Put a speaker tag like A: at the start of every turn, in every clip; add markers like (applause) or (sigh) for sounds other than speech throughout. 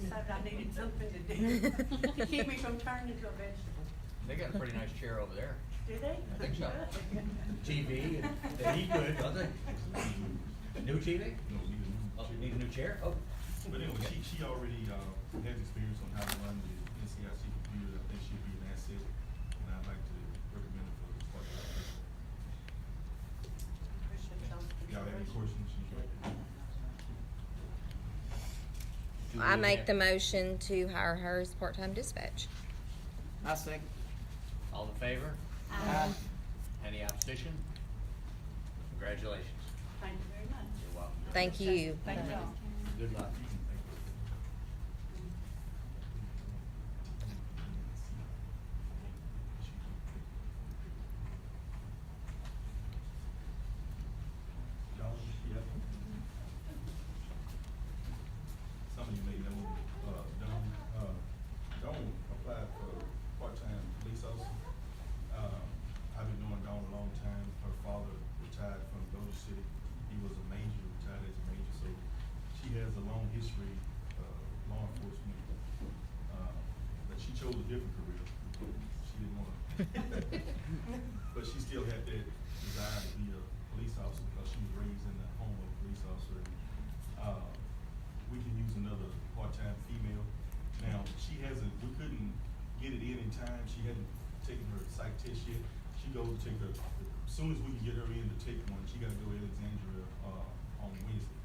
A: decided I needed something to do to keep me from turning into a vegetable.
B: They got a pretty nice chair over there.
A: Do they?
B: I think
A: (laughs)
B: so. TV and the heat good, don't they? A new TV?
C: No, we didn't.
B: Oh, you need a new chair? Oh.
C: But anyway, she, she already, uh, has experience on how to run the NCIC computer, I think she'd be an asset, and I'd like to recommend her for the part of the
A: Appreciate y'all's
C: Y'all have any
A: consideration.
C: questions? She's right there.
B: do
D: I
B: we
D: make
B: have-
D: the motion to hire her as part-time dispatch.
E: I second.
B: All in favor? Any opposition? Congratulations.
A: Thank you very much.
B: You're welcome.
D: Thank you.
A: Thank y'all.
B: Good luck.
C: Y'all, yeah. Some of you may know, uh, Don, uh, Don applied for part-time police officer. Um, I've been knowing Dawn a long time. Her father retired from Dodge City. He was a major, retired as a major, so she has a long history, uh, law enforcement. Uh, But she chose a different career. She didn't wanna. (laughs) But she still had that desire to be a police officer because she was raised in the home of a police officer. And, Uh, we can use another part-time female. Now, she hasn't, we couldn't get it in in time. She hadn't taken her psych test yet. She goes to take her, as soon as we can get her in to take one, she gotta go to Alexandria, uh, on Wednesday.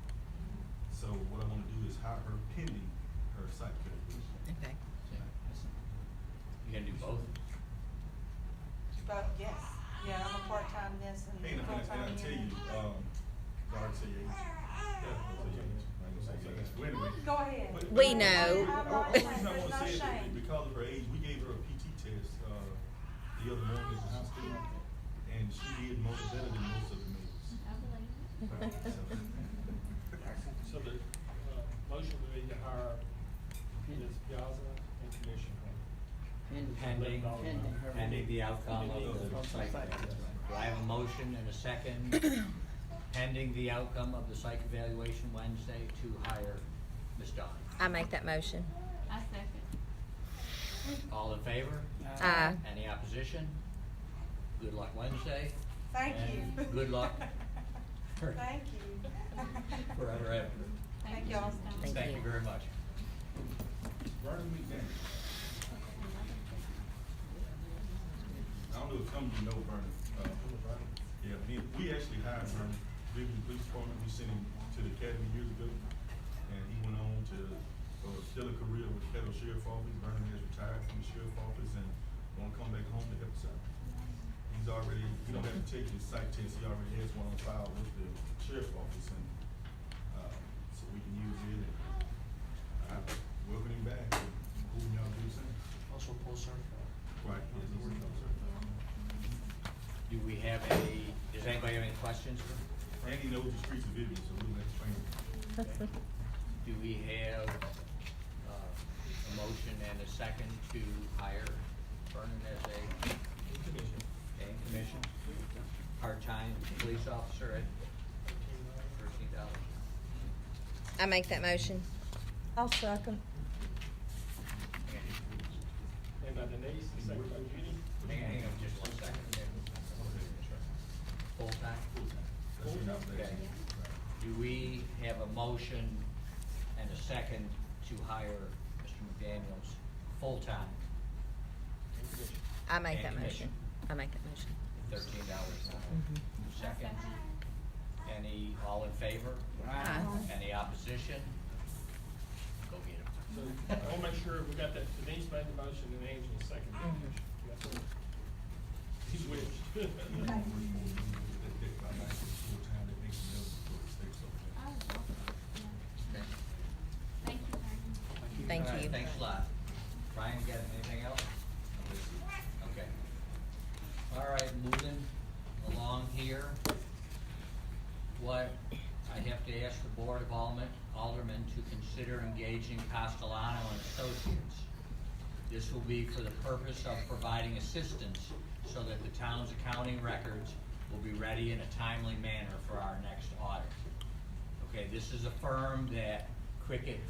C: So what I wanna do is hire her pending her psych graduation.
D: Okay.
B: You gonna do both?
A: But yes, yeah, I'm a part-time this
C: And,
A: and
C: and I- and I
A: full-time
C: tell
A: that.
C: you, um, I'll tell you, yeah, I'll tell you, I ain't gonna say it. Well, anyway.
A: Go ahead.
C: uh, But-
D: We
C: but-
A: I'm
D: know.
C: but-
A: not
C: but the
A: ashamed. There's
C: reason I wanna
A: no
C: say it is
A: shame.
C: Because of her age, we gave her a PT test, uh, the other morning at the hospital, and she did most better than most of the males.
D: (laughs)
C: (laughs) So-
F: So the uh, motion would be to hire Peter Piazza and Commissioner
B: Pending, pending the outcome of the
F: Pending
B: psych.
F: the outcome of the psych.
B: Do I have a motion and a second,
D: (coughs)
B: pending the outcome of the psych evaluation Wednesday to hire Ms. Don?
D: I make that motion.
G: I second.
B: All in favor?
D: Aye.
B: Any opposition? Good luck Wednesday,
A: Thank you. (laughs)
B: Good luck.
A: Thank you.
B: forever after.
A: Thank y'all.
D: Thank
B: Thank
D: you.
B: you very much.
C: Vernon McDaniel. I don't know if some of you know Vernon. Uh, Yeah, me, we actually hired Vernon, Cleveland Police Department, we sent him to the academy years ago. And he went on to, uh, still a career with the federal sheriff office. Vernon has retired from the sheriff office and wanna come back home to help us out. He's already, we don't have to take his psych test, he already has one on file with the sheriff office and, uh, so we can use it and I welcome him back. Who y'all do the same?
F: Also Paul Sarko.
C: Right, yes, he's a officer.
B: Do we have any, does anybody have any questions?
C: And he knows the streets of Vivian, so we'll have to train him.
D: (laughs)
B: Do we have, uh, a motion and a second to hire Vernon as a and commission, part-time police officer at thirteen dollars.
D: I make that motion. I'll second.
F: Made by Denise, and second by Judy.
B: Hang on, hang on, just one second. Full-time?
C: That's your nomination.
B: Okay. Do we have a motion and a second to hire Mr. McDaniels full-time,
F: And Commissioner.
D: I make that
B: And
D: motion.
B: commission.
D: I make that motion.
B: thirteen dollars an hour? Second, any, all in favor?
D: Aye.
B: Any opposition? Go
F: So
B: get
F: I
B: him.
F: wanna make sure we got that, Denise made the motion and Angela seconded the motion. That's all. He's wished. (laughs)
C: He's gonna bring more than that dick by night to full time, that makes him eligible for the stakes over there.
B: Okay.
G: Thank you, Vernon.
D: Thank
B: All right,
D: you.
B: Thanks a lot. Brian, you got anything else? Okay. All right, moving along here. What, I have to ask the Board of Aldermen, Aldermen to consider engaging Castellano and Associates. This will be for the purpose of providing assistance so that the town's accounting records will be ready in a timely manner for our next audit. Okay, this is a firm that Cricket